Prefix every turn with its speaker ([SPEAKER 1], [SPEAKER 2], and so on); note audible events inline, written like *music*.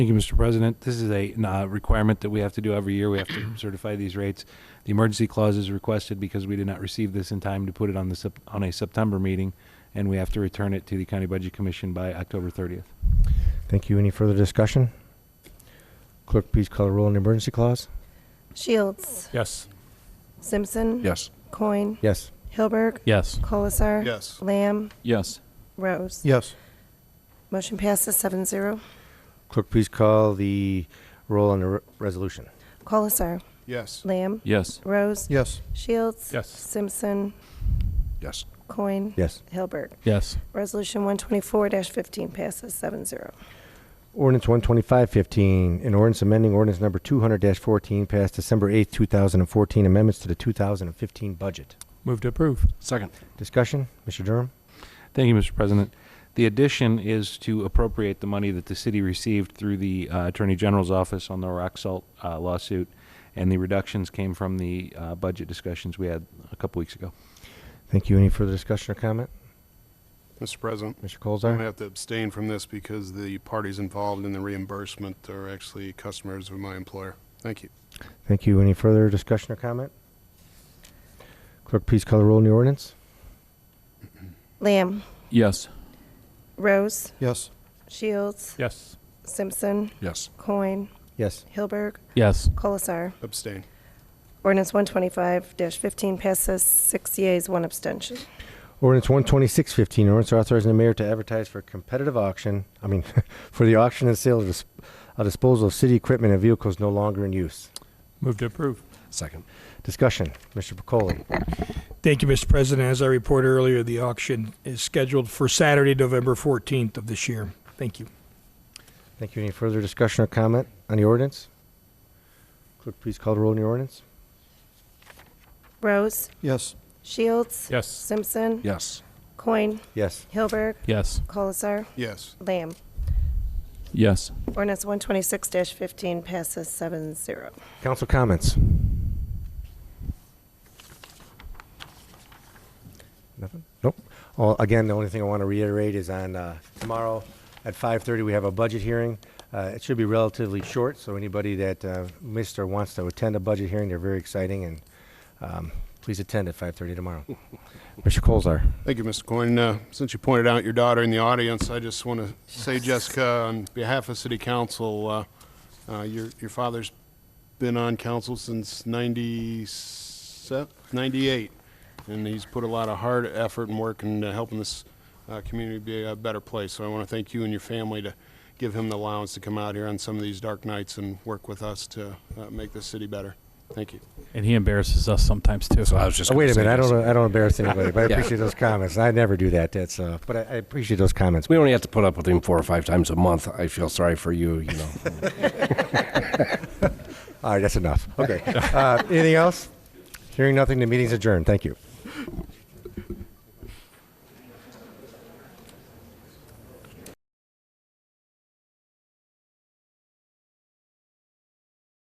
[SPEAKER 1] Thank you, Mr. President. This is a uh, requirement that we have to do every year. We have to certify these rates. The emergency clause is requested because we did not receive this in time to put it on the, Sep- on a September meeting, and we have to return it to the County Budget Commission by October 30th.
[SPEAKER 2] Thank you. Any further discussion? Clerk, please call the roll on the emergency clause.
[SPEAKER 3] Shields.
[SPEAKER 4] Yes.
[SPEAKER 3] Simpson.
[SPEAKER 5] Yes.
[SPEAKER 3] Coin.
[SPEAKER 2] Yes.
[SPEAKER 3] Hilberg.
[SPEAKER 4] Yes.
[SPEAKER 3] Colasar.
[SPEAKER 5] Yes.
[SPEAKER 3] Lamb.
[SPEAKER 4] Yes.
[SPEAKER 3] Rose.
[SPEAKER 5] Yes.
[SPEAKER 3] Motion passes seven zero.
[SPEAKER 2] Clerk, please call the roll on the re- resolution.
[SPEAKER 3] Colasar.
[SPEAKER 5] Yes.
[SPEAKER 3] Lamb.
[SPEAKER 4] Yes.
[SPEAKER 3] Rose.
[SPEAKER 5] Yes.
[SPEAKER 3] Shields.
[SPEAKER 4] Yes.
[SPEAKER 3] Simpson.
[SPEAKER 5] Yes.
[SPEAKER 3] Coin.
[SPEAKER 2] Yes.
[SPEAKER 3] Hilberg.
[SPEAKER 4] Yes.
[SPEAKER 3] Resolution one twenty-four fifteen passes seven zero.
[SPEAKER 2] Ordinance one twenty-five fifteen, an ordinance amending ordinance number two hundred fourteen passed December eighth, two thousand and fourteen, amendments to the two thousand and fifteen budget.
[SPEAKER 4] Move to approve.
[SPEAKER 5] Second.
[SPEAKER 2] Discussion, Mr. Durham?
[SPEAKER 1] Thank you, Mr. President. The addition is to appropriate the money that the city received through the uh, Attorney General's office on the rock salt uh, lawsuit, and the reductions came from the uh, budget discussions we had a couple weeks ago.
[SPEAKER 2] Thank you. Any further discussion or comment?
[SPEAKER 6] Mr. President,
[SPEAKER 2] Mr.
[SPEAKER 6] I'm going to
[SPEAKER 2] Colzar?
[SPEAKER 6] have to abstain from this because the parties involved in the reimbursement are actually customers of my employer. Thank you.
[SPEAKER 2] Thank you. Any further discussion or comment? Clerk, please call the roll on the ordinance.
[SPEAKER 3] Lamb.
[SPEAKER 4] Yes.
[SPEAKER 3] Rose.
[SPEAKER 5] Yes.
[SPEAKER 3] Shields.
[SPEAKER 4] Yes.
[SPEAKER 3] Simpson.
[SPEAKER 5] Yes.
[SPEAKER 3] Coin.
[SPEAKER 2] Yes.
[SPEAKER 3] Hilberg.
[SPEAKER 4] Yes.
[SPEAKER 3] Colasar.
[SPEAKER 6] Abstain.
[SPEAKER 3] Ordinance one twenty-five fifteen passes six yeas, one abstention.
[SPEAKER 2] Ordinance one twenty-six fifteen, ordinance authorizing the mayor to advertise for competitive auction, I mean, *laughs* for the auction and sale of dis- of disposal of city equipment and vehicles no longer in use.
[SPEAKER 4] Move to approve.
[SPEAKER 5] Second.
[SPEAKER 2] Discussion, Mr. Pacoli.
[SPEAKER 7] Thank you, Mr. President. As I reported earlier, the auction is scheduled for Saturday, November 14th of this year. Thank you.
[SPEAKER 2] Thank you. Any further discussion or comment on the ordinance? Clerk, please call the roll on the ordinance.
[SPEAKER 3] Rose.
[SPEAKER 5] Yes.
[SPEAKER 3] Shields.
[SPEAKER 4] Yes.
[SPEAKER 3] Simpson.
[SPEAKER 5] Yes.
[SPEAKER 3] Coin.
[SPEAKER 2] Yes.
[SPEAKER 3] Hilberg.
[SPEAKER 4] Yes.
[SPEAKER 3] Colasar.
[SPEAKER 6] Yes.
[SPEAKER 3] Lamb.
[SPEAKER 4] Yes.
[SPEAKER 3] Ordinance one twenty-six fifteen passes seven zero.
[SPEAKER 2] Council comments? Nothing? Nope. Well, again, the only thing I want to reiterate is on uh, tomorrow at 5:30, we have a budget hearing. Uh, It should be relatively short, so anybody that uh, missed or wants to attend a budget hearing, they're very exciting, and um, please attend at 5:30 tomorrow. Mr. Colzar?
[SPEAKER 6] Thank you, Mr. Coyne. Uh, since you pointed out your daughter in the audience, I just want to say, Jessica, on behalf of City Council, uh, uh, your, your father's been on council since 97, 98, and he's put a lot of hard effort and work in uh, helping this uh, community be a better place. So I want to thank you and your family to give him the allowance to come out here on some of these dark nights and work with us to uh, make this city better. Thank you.
[SPEAKER 4] And he embarrasses us sometimes too.
[SPEAKER 5] So I was just.
[SPEAKER 2] Oh,
[SPEAKER 5] gonna
[SPEAKER 2] wait a
[SPEAKER 5] say
[SPEAKER 2] minute, I
[SPEAKER 5] this.
[SPEAKER 2] don't, I don't embarrass anybody, but I appreciate those comments. I never do that, that's, uh, but I I appreciate those comments.
[SPEAKER 5] We only have to put up with him four or five times a month. I feel sorry for you, you know.
[SPEAKER 2] *laughs* All right, that's enough. Okay. Uh, Anything else? Hearing nothing, the meeting's adjourned. Thank you.